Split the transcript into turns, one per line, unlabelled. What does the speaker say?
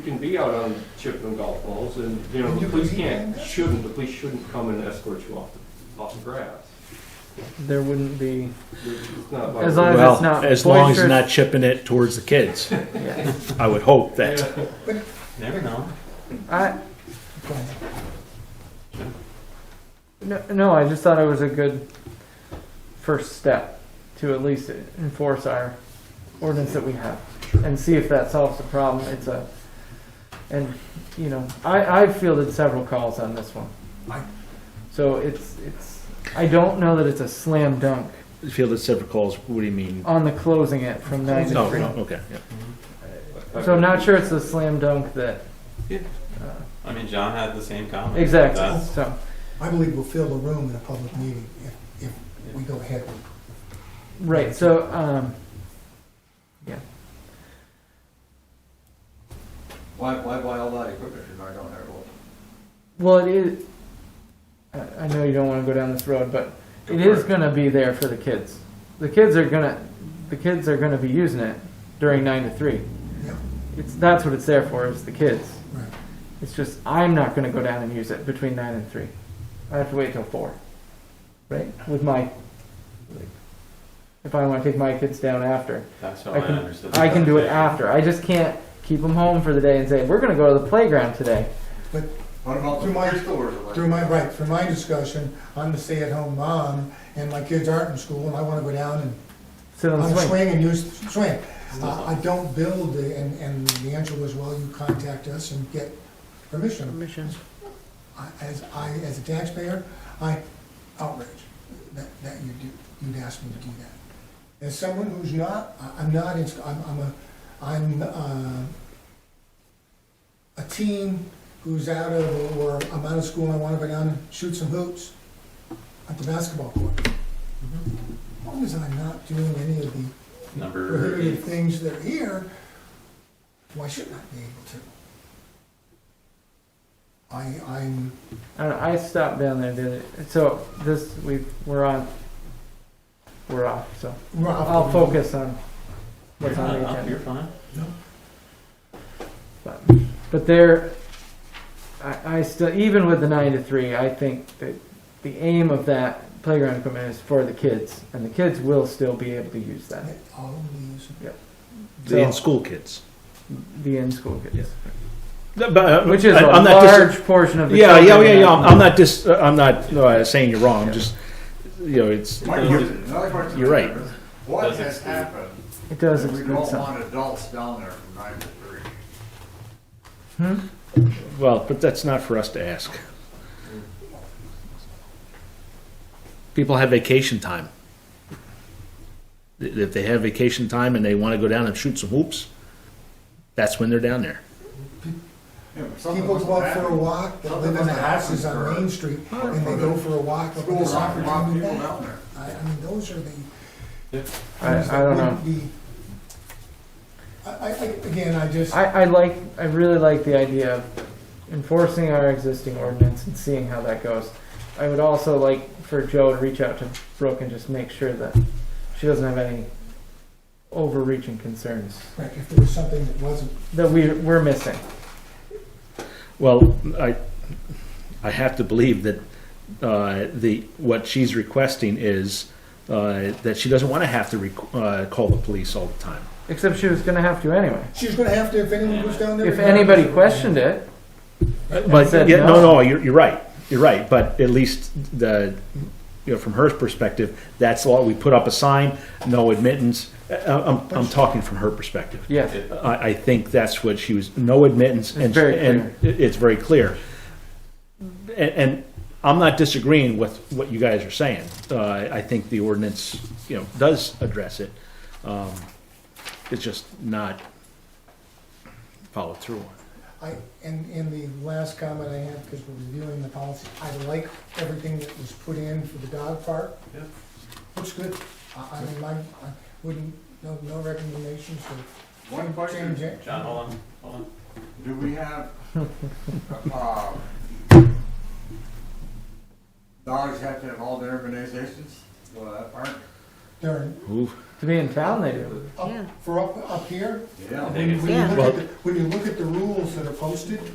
You can be out on Chipman golf balls and, you know,
And
the
you
police
can eat
can't,
that?
shouldn't, the police shouldn't come and escort you off the, off the grass.
there wouldn't be.
It's not
As
like,
long-
Well,
it's not
as long as you're
boisterous.
not chipping it towards the kids,
Yeah.
I would hope that.
Never know.
I. No, no, I just thought it was a good first step to at least enforce our ordinance that we have and see if that solves the problem. It's a, and you know, I I fielded several calls on this one, so it's it's. I don't know that it's a slam dunk
Field at separate calls, what do you mean?
on the closing it from nine to
No,
three.
no, okay. yeah.
So I'm not sure it's a slam dunk that
I mean, John had the same comment.
exactly.
That's-
So
I believe we'll fill the room in a public meeting if, if we go ahead.
right. So um,
Why, why buy all that equipment if I don't have one?
Well, it is. I I know you don't want to go down this road, but
Go
it
for
is
it.
going to be there for the kids. The kids are going to, the kids are going to be using it during nine to three.
Yep.
It's that's what it's there for is the kids.
Right.
It's just I'm not going to go down and use it between nine and three. I have to wait till four, right? With my, if I want to take my kids down after,
That's how
I
I
can-
understood. the
I can do it
conversation.
after. I just can't keep them home for the day and say we're going to go to the playground today.
What about
Through my-
the pistol or something?
Through my, right, through my discussion, I'm the stay-at-home mom, and my kids aren't in school, and I wanna go down and,
Sit on the
on the
swing.
Oh, swing and use the swing. Uh, I don't build, the- and, and the answer was, well, you contact us and get permission.
Mission.
I- As, I, as a taxpayer, I outrage that, that you do, you'd ask me to do that. As someone who's not, I- I'm not, in sch- I'm, I'm a, I'm, uh, a teen who's out of, or I'm out of school and I wanna go down and shoot some hoops at the basketball court. As long as I'm not doing any of the
Number
prohibited
eight.
things that are here, why shouldn't I be able to? I, I'm,
I, don't know, I stopped down there the other. So this we we're on. We're off. So
well,
I'll focus on
You're
what's on
fine,
the
Up, you're
agenda.
fine.
But, but there, I, I still even with the nine to three, I think that the aim of that playground equipment is for the kids, and the kids will still be able to use that.
All of these,
So-
The in-school kids.
The in-school kids,
But, uh,
which is
I-
a
I'm not dis-
large portion of the
Yeah, yeah,
children
yeah,
in
yeah,
that
I'm I'm not just, I'm not, no, I'm saying you're wrong, I'm just, you know, it's,
My
you're-
question, another question.
you're
I
right.
have is, What
Does
has
exclude.
happened?
It does
that We
exclude
don't
some.
want adults down there from nine to three.
Hmm?
well, but that's not for us to ask. People have vacation time. If if they have vacation time and they want to go down and shoot some hoops, that's when they're down there.
Yeah, but something
people
must
go out
have
for a
happened.
walk, they live in the houses on Main Street, and they go for a walk up in the
Schools
soccer
aren't allowing
team.
people
and back.
down there.
I, I mean, those are the.
Yeah.
I-
things
I
that
don't
wouldn't be- I, I, I- again, I just,
I, I like, I really like the idea of enforcing our existing ordinance and seeing how that goes. I would also like for Joe to reach out to Brooke and just make sure that she doesn't have any overreaching concerns
like, if there was something that wasn't,
that we, we're missing.
Well, I, I have to believe that uh, the, what she's requesting is uh, that she doesn't want to have to rec- uh, call the police all the time.
Except she was gonna have to anyway.
she's gonna have to, if anyone goes down there.
If
regardless
anybody
of-
questioned it,
But
said
yeah,
no.
no, no, you're, you're right. You're right. But at least the, you know, from her perspective, that's all we put up a sign, no admittance. I- I'm, I'm talking from her perspective.
yes,
It-
I, I think that's what she was, no admittance. and
very
and it- It's very clear. And, and I'm not disagreeing with what you guys are saying. Uh, I think the ordinance, you know, does address it. Um, It's just not followed through on.
I, and, and the last comment I have, because we're reviewing the policy, I like everything that was put in for the dog park.
Yep.
Looks good. I, I mean, my, I wouldn't, no, no recommendations for
One question,
change it.
John, hold on, hold on.
do we have, uh, dogs have to have all their immunizations? Well, that part,
Darn,
Ooh,
To be in town, they do.
Up-
Yeah.
For up, up here,
Yeah.
when you when you
Yeah.
look at, the- when you look at the rules that are posted,